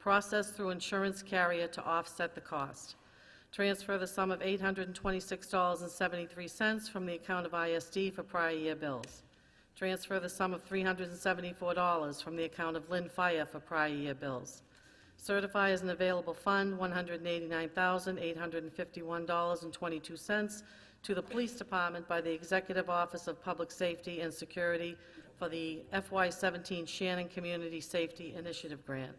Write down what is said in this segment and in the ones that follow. processed through insurance carrier to offset the cost. Transfer the sum of $826.73 from the account of ISD for prior year bills. Transfer the sum of $374 from the account of Lynn Fire for prior year bills. Certify as an available fund, $189,851.22 to the Police Department by the Executive Office of Public Safety and Security for the FY17 Shannon Community Safety Initiative Grant.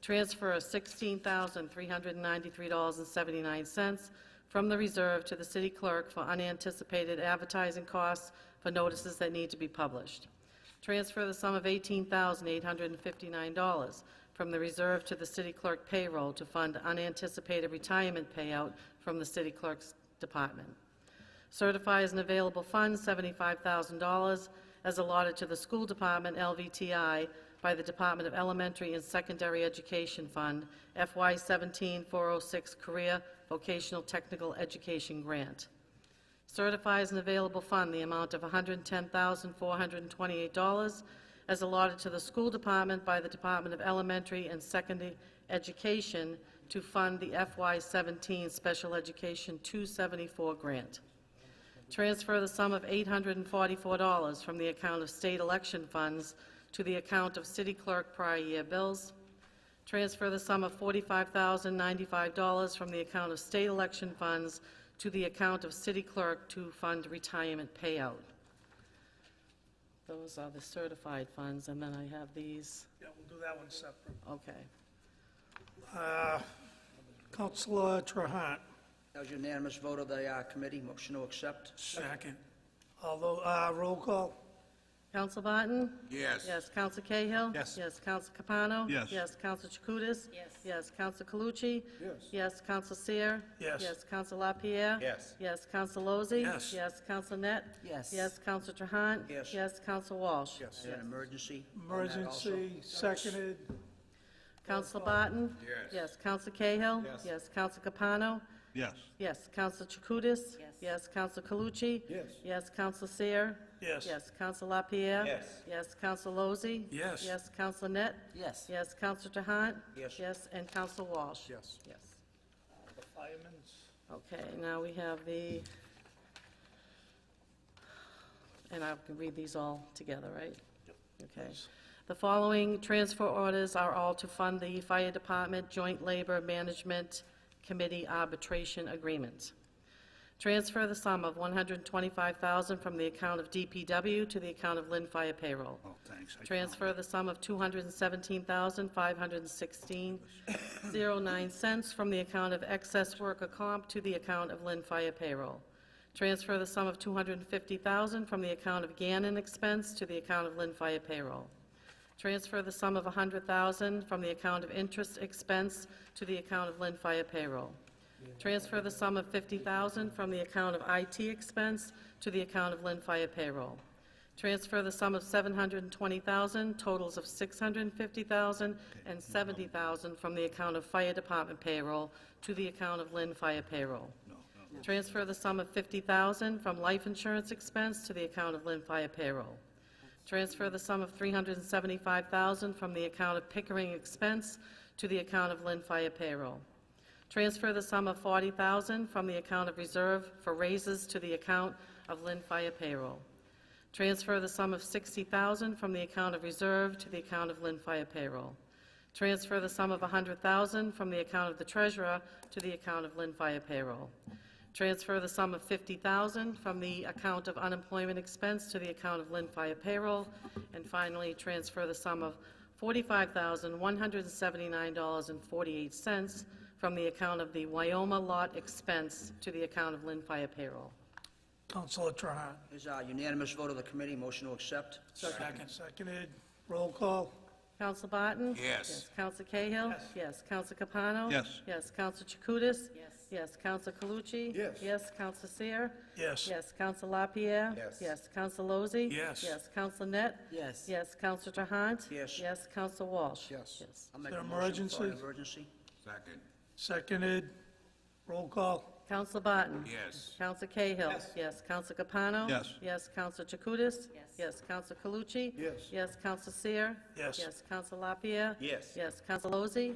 Transfer $16,393.79 from the reserve to the city clerk for unanticipated advertising costs for notices that need to be published. Transfer the sum of $18,859 from the reserve to the city clerk payroll to fund unanticipated retirement payout from the city clerk's department. Certify as an available fund $75,000 as allotted to the school department LVTI by the Department of Elementary and Secondary Education Fund FY 17406 Career oh Vocational Technical Education Grant. Certify as an available fund the amount of $110,428 as allotted to the school department by the Department of Elementary and Secondary Education to fund the FY17 Special Education 274 grant. Transfer the sum of $844 from the account of state election funds to the account of city clerk prior year bills. Transfer the sum of $45,095 from the account of state election funds to the account of city clerk to fund retirement payout. Those are the certified funds, and then I have these, Yeah, we'll do that one separate. okay. Uh, Counselor Trahan, That was unanimous vote of the uh, committee, motion to accept. second. Although, uh, roll call, Counsel Barton? Yes. Yes, Counsel Cahill? Yes. Yes, Counsel Capano? Yes. Yes, Counsel Chakutis? Yes. Yes, Counsel Calucci? Yes. Yes, Counsel Seer? Yes. Yes, Counsel LaPierre? Yes. Yes, Counsel Lozey? Yes. Yes, Counsel Net? Yes. Yes, Counsel Trahan? Yes. Yes, Counsel Walsh? And an emergency. on that also. emergency, seconded, Counsel Barton? Yes. Yes, Counsel Cahill? Yes. Yes, Counsel Capano? Yes. Yes, Counsel Chakutis? Yes. Yes, Counsel Calucci? Yes. Yes, Counsel Seer? Yes. Yes, Counsel LaPierre? Yes. Yes, Counsel Lozey? Yes. Yes, Counsel Net? Yes. Yes, Counsel Trahan? Yes. Yes, and Counsel Walsh? Yes. Yes. Okay, now we have the, and I can read these all together, right? Okay. The following transfer orders are all to fund the Fire Department Joint Labor Management Committee arbitration agreement. Transfer the sum of 125000 from the account of DPW to the account of Lynn Fire payroll. Oh, thanks. I Transfer the sum of $217,516.09 cents from the account of excess worker comp to the account of Lynn Fire payroll. Transfer the sum of $250,000 from the account of Gannon expense to the account of Lynn Fire payroll. Transfer the sum of $100,000 from the account of interest expense to the account of Lynn Fire payroll. Transfer the sum of $50,000 from the account of IT expense to the account of Lynn Fire payroll. Transfer the sum of $720,000, totals of $650,000 and $70,000 from the account of Fire Department payroll to the account of Lynn Fire payroll. Transfer the sum of $50,000 from life insurance expense to the account of Lynn Fire payroll. Transfer the sum of $375,000 from the account of Pickering expense to the account of Lynn Fire payroll. Transfer the sum of $40,000 from the account of reserve for raises to the account of Lynn Fire payroll. Transfer the sum of $60,000 from the account of reserve to the account of Lynn Fire payroll. Transfer the sum of $100,000 from the account of the treasurer to the account of Lynn Fire payroll. Transfer the sum of $50,000 from the account of unemployment expense to the account of Lynn Fire payroll. And finally, transfer the sum of $45,179.48 from the account of the Wyoma lot expense to the account of Lynn Fire payroll. Counselor Trahan, Is a uh, unanimous vote of the committee, motion to accept. second, seconded, roll call, Counsel Barton? Yes. Yes, Counsel Cahill? Yes. Yes, Counsel Capano? Yes. Yes, Counsel Chakutis? Yes. Yes, Counsel Calucci? Yes. Yes, Counsel Seer? yes. Yes, Counsel LaPierre? Yes. Yes, Counsel Lozey? Yes. Yes, Counsel Net? Yes. Yes, Counsel Trahant? Yes. Yes, Counsel Walsh? Yes. Yes. I'll make there a motion for an emergencies? emergency. Second. Seconded, roll call, Counsel Barton? Yes. Counsel Cahill? Yes. Yes, Counsel Capano? Yes. Yes, Counsel Chakutis? Yes. Yes, Counsel Calucci? Yes. Yes, Counsel Seer? Yes. Yes, Counsel LaPierre? Yes. Yes, Counsel Lozey?